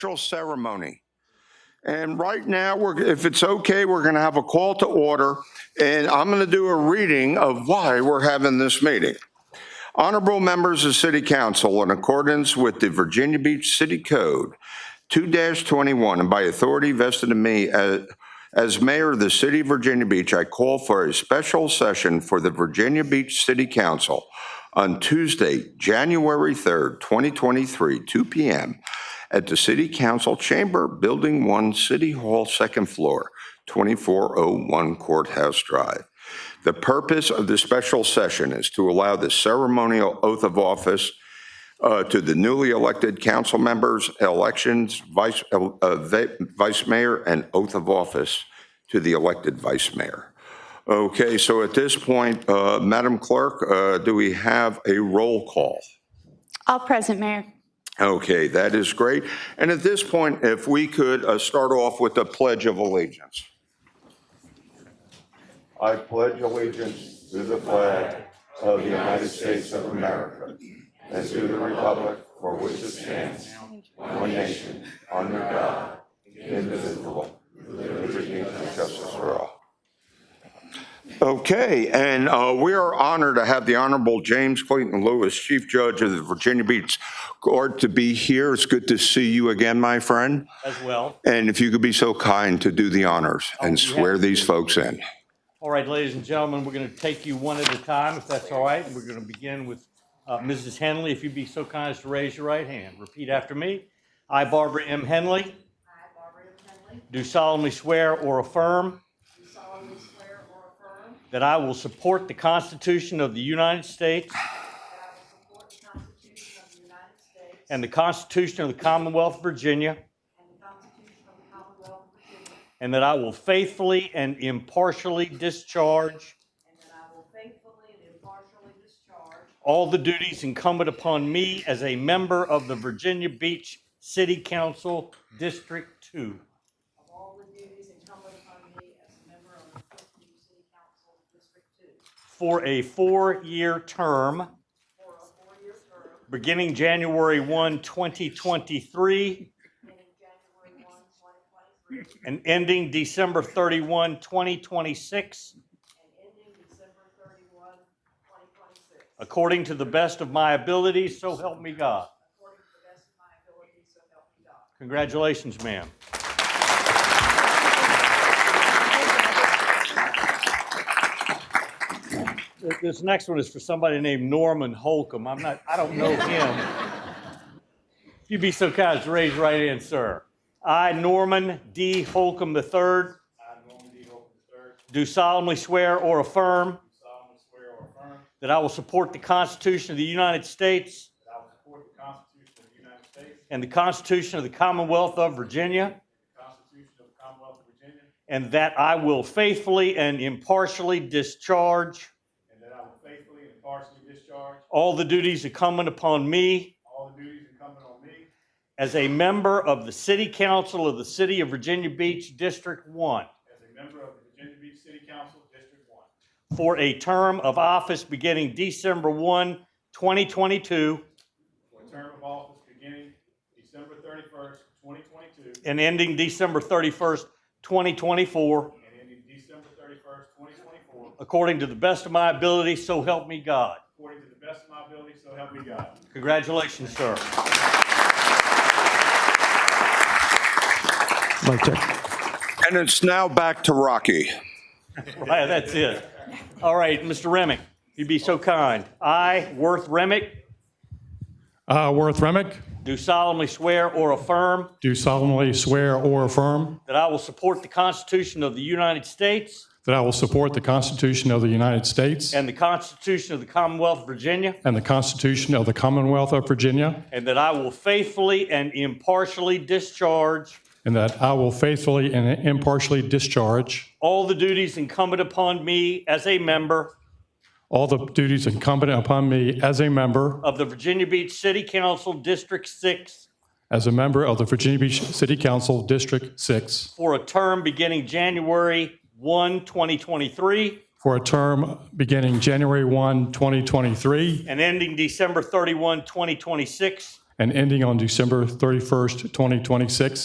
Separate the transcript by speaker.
Speaker 1: Cultural ceremony. And right now, we're, if it's okay, we're going to have a call to order, and I'm going to do a reading of why we're having this meeting. Honorable members of City Council, in accordance with the Virginia Beach City Code 2-21, and by authority vested in me as, as mayor of the city of Virginia Beach, I call for a special session for the Virginia Beach City Council on Tuesday, January 3rd, 2023, 2 p.m. at the City Council Chamber, Building 1, City Hall, second floor, 2401 Courthouse Drive. The purpose of the special session is to allow the ceremonial oath of office uh, to the newly elected council members, elections, vice, uh, uh, va- vice mayor, and oath of office to the elected vice mayor. Okay, so at this point, uh, Madam Clerk, uh, do we have a roll call?
Speaker 2: All present, Mayor.
Speaker 1: Okay, that is great. And at this point, if we could uh, start off with the Pledge of Allegiance. I pledge allegiance to the flag of the United States of America and to the republic for which it stands, one nation, under God, indivisible, with liberty and justice for all. Okay, and uh, we are honored to have the Honorable James Clayton Lewis, Chief Judge of the Virginia Beach Court, to be here. It's good to see you again, my friend.
Speaker 3: as well.
Speaker 1: And if you could be so kind to do the honors and
Speaker 3: Oh, yeah.
Speaker 1: swear these folks in.
Speaker 3: All right, ladies and gentlemen, we're going to take you one at a time, if that's all right. We're going to begin with uh, Mrs. Henley. If you'd be so kind as to raise your right hand. Repeat after me. I, Barbara M. Henley,
Speaker 4: I, Barbara M. Henley,
Speaker 3: do solemnly swear or affirm
Speaker 4: do solemnly swear or affirm
Speaker 3: that I will support the Constitution of the United States
Speaker 4: that I will support the Constitution of the United States
Speaker 3: and the Constitution of the Commonwealth of Virginia,
Speaker 4: and the Constitution of the Commonwealth of Virginia,
Speaker 3: and that I will faithfully and impartially discharge
Speaker 4: and that I will faithfully and impartially discharge
Speaker 3: all the duties incumbent upon me as a member of the Virginia Beach City Council District 2.
Speaker 4: of all the duties incumbent upon me as a member of the Fifth New City Council District Two
Speaker 3: for a four-year term
Speaker 4: for a four-year term
Speaker 3: beginning January 1, 2023
Speaker 4: beginning January 1, 2023,
Speaker 3: and ending December 31, 2026,
Speaker 4: and ending December 31, 2026,
Speaker 3: according to the best of my abilities, so help me God.
Speaker 4: according to the best of my ability, so help me God.
Speaker 3: Congratulations, ma'am. Th- This next one is for somebody named Norman Holcomb. I'm not, I don't know him. If you'd be so kind as to raise your right hand, sir. I, Norman D. Holcomb III. I, Norman D. Holcomb III. Do solemnly swear or affirm
Speaker 5: solemnly swear or affirm
Speaker 3: that I will support the Constitution of the United States
Speaker 5: that I will support the Constitution of the United States,
Speaker 3: and the Constitution of the Commonwealth of Virginia,
Speaker 5: the Constitution of the Commonwealth of Virginia,
Speaker 3: And that I will faithfully and impartially discharge
Speaker 5: and that I will faithfully and impartially discharge
Speaker 3: all the duties incumbent upon me
Speaker 5: all the duties incumbent on me
Speaker 3: as a member of the City Council of the City of Virginia Beach District 1
Speaker 5: as a member of the Virginia Beach City Council District One
Speaker 3: for a term of office beginning December 1, 2022,
Speaker 5: for a term of office beginning December thirty-first, twenty twenty-two
Speaker 3: and ending December 31st, 2024,
Speaker 5: and ending December thirty-first, twenty twenty-four,
Speaker 3: according to the best of my ability, so help me God.
Speaker 5: according to the best of my ability, so help me God.
Speaker 3: Congratulations, sir.
Speaker 6: Mic check.
Speaker 1: And it's now back to Rocky.
Speaker 3: Right, Oh, that's it. All right, Mr. Remick, if you'd be so kind. I, Worth Remick,
Speaker 6: Uh, Worth Remick,
Speaker 3: Do solemnly swear or affirm
Speaker 6: do solemnly swear or affirm
Speaker 3: that I will support the Constitution of the United States
Speaker 6: that I will support the Constitution of the United States
Speaker 3: and the Constitution of the Commonwealth of Virginia,
Speaker 6: and the Constitution of the Commonwealth of Virginia,
Speaker 3: and that I will faithfully and impartially discharge
Speaker 6: and that I will faithfully and impartially discharge
Speaker 3: all the duties incumbent upon me as a member
Speaker 6: all the duties incumbent upon me as a member,
Speaker 3: of the Virginia Beach City Council District 6
Speaker 6: as a member of the Virginia Beach City Council District 6
Speaker 3: for a term beginning January 1, 2023,
Speaker 6: for a term beginning January 1, 2023,
Speaker 3: and ending December 31, 2026,
Speaker 6: and ending on December 31st, 2026.